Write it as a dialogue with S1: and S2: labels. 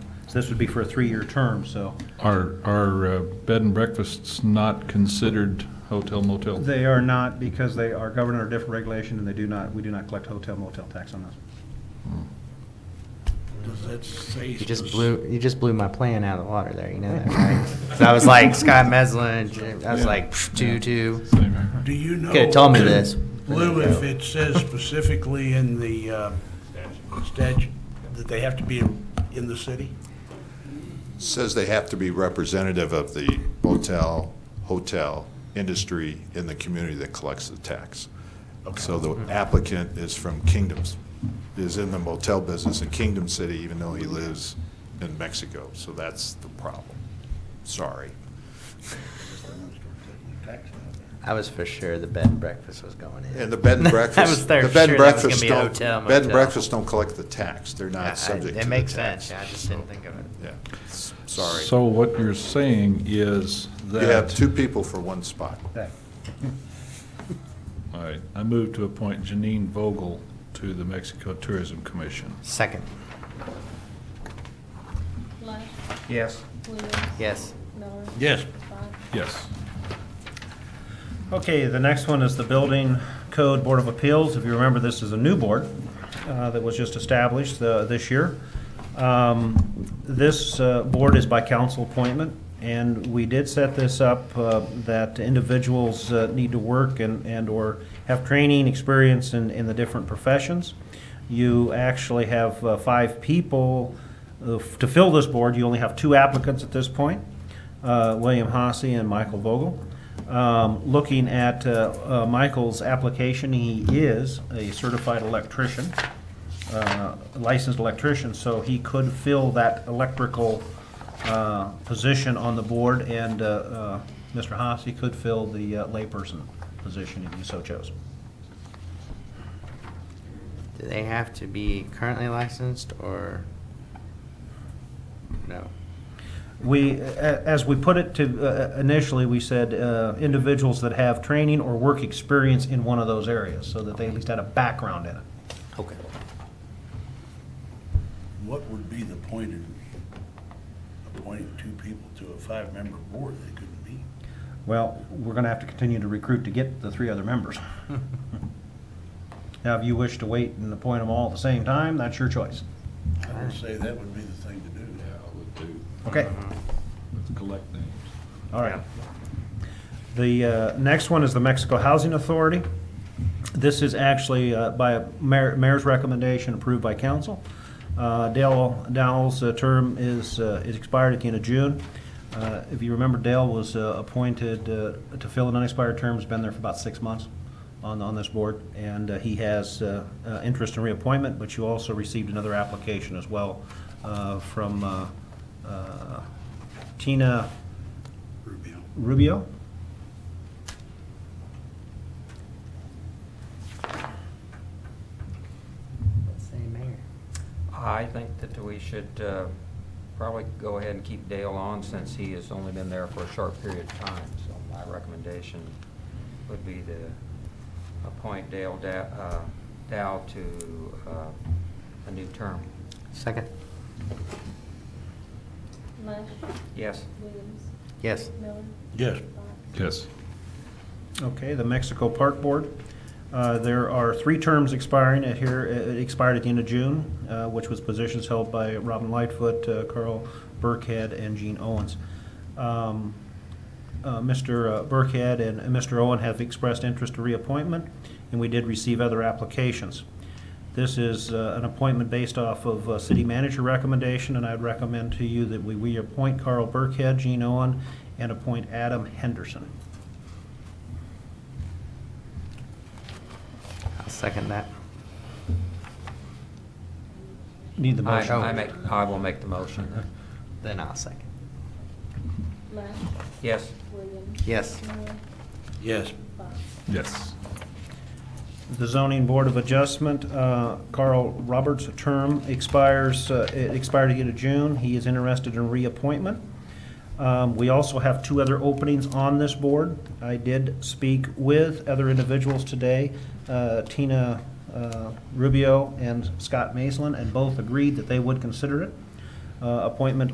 S1: So this would be for a three-year term, so
S2: Are, are uh, bed and breakfasts not considered hotel motel?
S1: they are not, because they are governed under different regulation, and they do not, we do not collect hotel motel tax on those.
S3: Does that say?
S4: You just blew you just blew my plan out of the water there. You know that, right? so I was like Scott Meslin. J- I was
S2: Yeah.
S4: like pff, two two.
S2: Same.
S3: Do you know?
S4: Could've told me this.
S3: Lou, if it says specifically in the uh, statute that they have to be in- in the city?
S5: Says they have to be representative of the motel, hotel, industry in the community that collects the tax. So the applicant is from Kingdoms, is in the motel business in Kingdom City, even though he lives in Mexico. So that's the problem. Sorry.
S4: I was for sure the bed and breakfast was going in.
S5: And the bed and breakfast.
S4: I was there
S5: the
S4: for
S5: bed and
S4: sure that was
S5: breakfast
S4: gonna be a
S5: don't-
S4: hotel
S5: Bed and
S4: motel.
S5: breakfast don't collect the tax. They're
S4: I- I-
S5: not subject to the
S4: it
S5: tax.
S4: makes sense. I just didn't think of it.
S5: Yeah, S- sorry.
S2: So what you're saying is
S5: You
S2: that.
S5: have two people for one spot.
S1: That-
S2: All right, I move to appoint Janine Vogel to the Mexico Tourism Commission.
S4: Second,
S6: Lush,
S1: Yes.
S6: Williams,
S4: yes.
S6: Miller,
S3: Yes.
S6: Bott.
S2: Yes.
S1: Okay, the next one is the Building Code Board of Appeals. If you remember, this is a new board uh, that was just established uh, this year. Um, This uh, board is by council appointment, and we did set this up uh, that individuals uh, need to work and, and/or have training, experience in, in the different professions. You actually have uh, five people uh, f- to fill this board. You only have two applicants at this point, uh, William Hossie and Michael Vogel. Um, Looking at uh, uh, Michael's application, he is a certified electrician, uh, licensed electrician, so he could fill that electrical uh, position on the board, and uh, uh, Mr. Haas, he could fill the uh, layperson position if you so chose.
S4: Do they have to be currently licensed or no?
S1: We, a- as we put it to, uh, initially, we said uh, individuals that have training or work experience in one of those areas, so that they at least had a background in it.
S4: Okay.
S3: What would be the point in appointing two people to a five-member board they couldn't meet?
S1: Well, we're going to have to continue to recruit to get the three other members. Now, if you wish to wait and appoint them all at the same time, that's your choice.
S3: I would say that would be the thing to do.
S1: Okay,
S2: Let's collect names.
S1: all right. The uh, next one is the Mexico Housing Authority. This is actually uh, by a mayor- mayor's recommendation approved by council. Uh, Dale Dowell's uh, term is uh, is expired at the end of June. Uh, If you remember, Dale was uh, appointed uh, to fill an unexpired term, has been there for about six months on on this board, and uh, he has uh, uh, interest in reappointment, but you also received another application as well uh, from uh, uh, Tina
S3: Rubio.
S1: Rubio.
S4: Let's say mayor.
S7: I think that we should uh, probably go ahead and keep Dale on since he has only been there for a short period of time. So my recommendation would be to appoint Dale Da- uh, Dow to uh, a new term.
S4: Second,
S6: Lush,
S7: Yes?
S6: Williams,
S4: yes.
S6: Miller,
S3: Yes.
S6: Bott.
S2: Yes.
S1: Okay, the Mexico Park Board. Uh, There are three terms expiring at here, it expired at the end of June, uh, which was positions held by Robin Lightfoot, uh, Carl Burkhead, and Gene Owens. Um, uh, Mr. Burkhead and Mr. Owen have expressed interest in reappointment, and we did receive other applications. This is uh, an appointment based off of uh, city manager recommendation, and I'd recommend to you that we reappoint Carl Burkhead, Gene Owen, and appoint Adam Henderson.
S4: I'll second that.
S1: Need the
S7: I-
S1: motion.
S7: I make, I will make the motion. then.
S4: Then I'll second.
S6: Lush,
S7: Yes?
S6: Williams.
S4: Yes.
S6: Miller,
S3: Yes.
S6: Bott.
S2: Yes.
S1: The zoning board of adjustment, uh, Carl Roberts' term expires, uh, it expired at the end of June. He is interested in reappointment. Um, We also have two other openings on this board. I did speak with other individuals today, uh, Tina uh, Rubio and Scott Maislin, and both agreed that they would consider it. uh, appointment